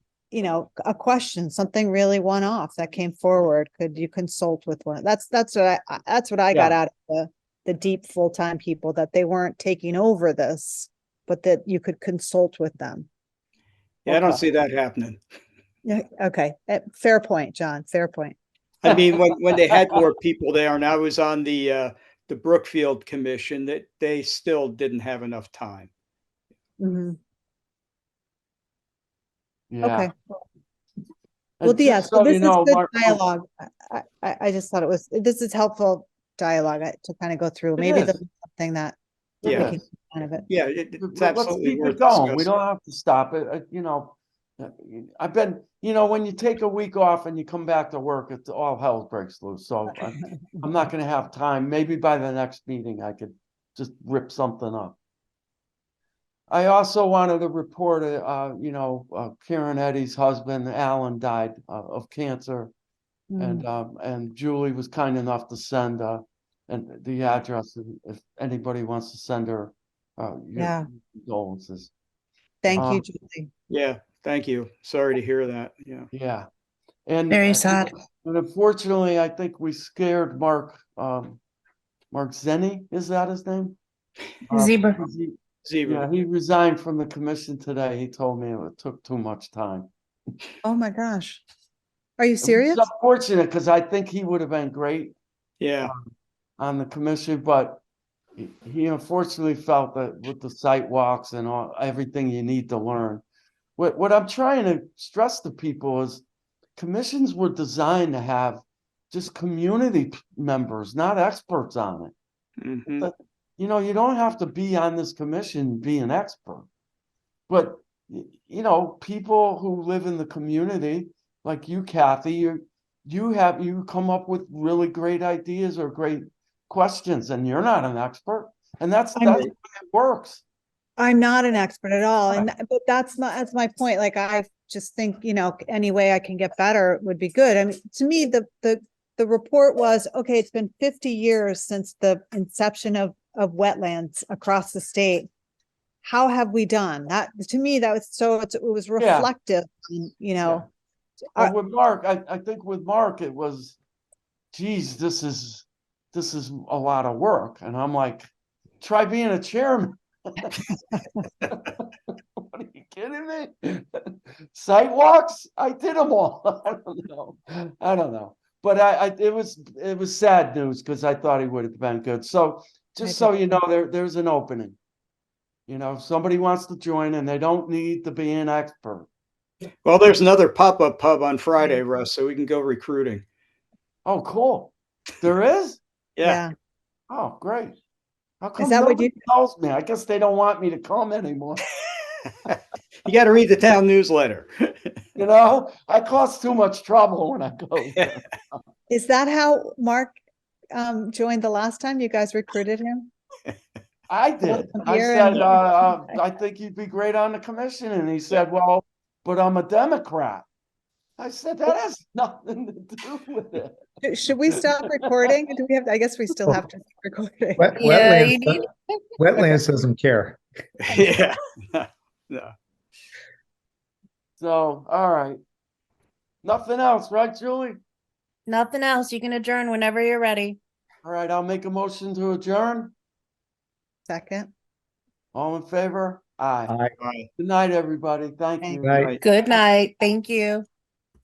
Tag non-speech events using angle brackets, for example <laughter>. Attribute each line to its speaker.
Speaker 1: you know, a question, something really one off that came forward, could you consult with one? That's, that's what I- I, that's what I got out of the, the deep full-time people, that they weren't taking over this, but that you could consult with them.
Speaker 2: Yeah, I don't
Speaker 1: Okay.
Speaker 2: see that happening.
Speaker 1: Yeah, okay, Eh, fair point, John, fair point.
Speaker 2: I mean, when, when they
Speaker 3: <laughs>
Speaker 2: had more people there and I was on the, uh, the Brookfield Commission, that they still didn't have enough time.
Speaker 1: Mhm,
Speaker 3: Yeah.
Speaker 1: okay. Well,
Speaker 3: And just
Speaker 1: yes, well,
Speaker 3: so
Speaker 1: this
Speaker 3: you
Speaker 1: is
Speaker 3: know,
Speaker 1: good
Speaker 3: Mark- oh.
Speaker 1: dialogue. I, I, I just thought it was, this is helpful dialogue I- to kind of go through,
Speaker 3: It
Speaker 1: maybe
Speaker 3: is.
Speaker 1: the, something that
Speaker 3: it
Speaker 2: Yeah.
Speaker 1: we
Speaker 3: is.
Speaker 1: can kind of it.
Speaker 2: Yeah, it-
Speaker 3: Let-
Speaker 2: it's
Speaker 3: let- Let's
Speaker 2: absolutely
Speaker 3: keep
Speaker 2: worth
Speaker 3: it going. We
Speaker 2: discussing.
Speaker 3: don't have to stop it, uh, you know. uh, I've been, you know, when you take a week off and you come back to work, it's all hell breaks loose. So I'm- I'm not gonna have time. Maybe by the next meeting, I could just rip something up. I also wanted to report, uh, uh, you know, uh, Karen Eddy's husband, Alan, died uh, of cancer.
Speaker 1: Mm-hmm.
Speaker 4: Mm.
Speaker 3: And, um, and Julie was kind enough to send, uh, and the address, and if anybody wants to send her, uh,
Speaker 1: Yeah.
Speaker 3: your condolences,
Speaker 1: Thank you,
Speaker 3: um,
Speaker 1: Julie.
Speaker 2: Yeah, thank you. Sorry to hear that. Yeah.
Speaker 3: yeah. And.
Speaker 4: Very
Speaker 3: uh,
Speaker 4: sad.
Speaker 3: And unfortunately, I think we scared Mark, um, Mark Zenny, is that his name? Uh,
Speaker 4: Zebra.
Speaker 3: he- Yeah,
Speaker 2: Zebra.
Speaker 3: he resigned from the commission today. He told me it took too much time.
Speaker 1: Oh, my gosh. Are you
Speaker 3: It's
Speaker 1: serious?
Speaker 3: Unfortunate, because I think he would have been great
Speaker 2: Yeah,
Speaker 3: um, on the commission, but he- he unfortunately felt that with the site walks and all, everything you need to learn. What, what I'm trying to stress to people is commissions were designed to have just community p- members, not experts on it.
Speaker 2: mhm,
Speaker 3: You know, you don't have to be on this commission, to be an expert. But, y- you know, people who live in the community, like you, Kathy, you, you have, you come up with really great ideas or great questions and you're not an expert. And that's,
Speaker 1: I'm-
Speaker 3: that's the way it works.
Speaker 1: I'm not an expert at all, and, th- but that's not, that's my point, like, I just think, you know, any way I can get better would be good, I mean, to me, the, the, the report was, okay, it's been fifty years since the inception of, of wetlands across the state. How have we done? That, to me, that was so, it's- it was reflective, and, you know,
Speaker 3: But
Speaker 1: I-
Speaker 3: with Mark, I, I think with Mark, it was, geez, this is, this is a lot of work. And I'm like, try being a chairman. <laughs> What are you kidding me? Sidewalks? I did them all. <laughs> I don't know. I don't know. But I, I, it was, it was sad news because I thought he would have been good. So just so you know, there, there's an opening. You know, if somebody wants to join and they don't need to be an expert.
Speaker 2: Well, there's another pop-up pub on Friday, Russ, so we can go recruiting.
Speaker 3: Oh, cool. There is?
Speaker 2: Yeah,
Speaker 3: Oh, great. How come
Speaker 1: that what
Speaker 3: nobody tells me? I guess they don't want me to come anymore. <laughs>
Speaker 2: you got to read the town newsletter.
Speaker 3: You know, I cause too much trouble when I go. there.
Speaker 1: Is that how Mark, um, joined the last time you guys recruited him?
Speaker 3: I did. I
Speaker 1: you're
Speaker 3: said,
Speaker 1: in-
Speaker 3: uh, uh, I think you'd be great on the commission. And he said, well, but I'm a Democrat. I said, that has nothing to do with it.
Speaker 1: Should- Should we stop recording? Do we have, I guess we still have to keep recording.
Speaker 5: Wet-
Speaker 4: Yeah, you
Speaker 5: Wetlands, do- wetlands doesn't care.
Speaker 2: <laughs> Yeah. No.
Speaker 3: So, all right. Nothing else, right, Julie?
Speaker 4: Nothing else. You can adjourn whenever you're ready.
Speaker 3: All right, I'll make a motion to adjourn.
Speaker 1: Second,
Speaker 3: All in favor? Aye.
Speaker 5: Aye.
Speaker 2: Bye.
Speaker 3: Good night, everybody. Thank
Speaker 1: Thank
Speaker 3: you.
Speaker 5: Right.
Speaker 4: Good night. Thank you.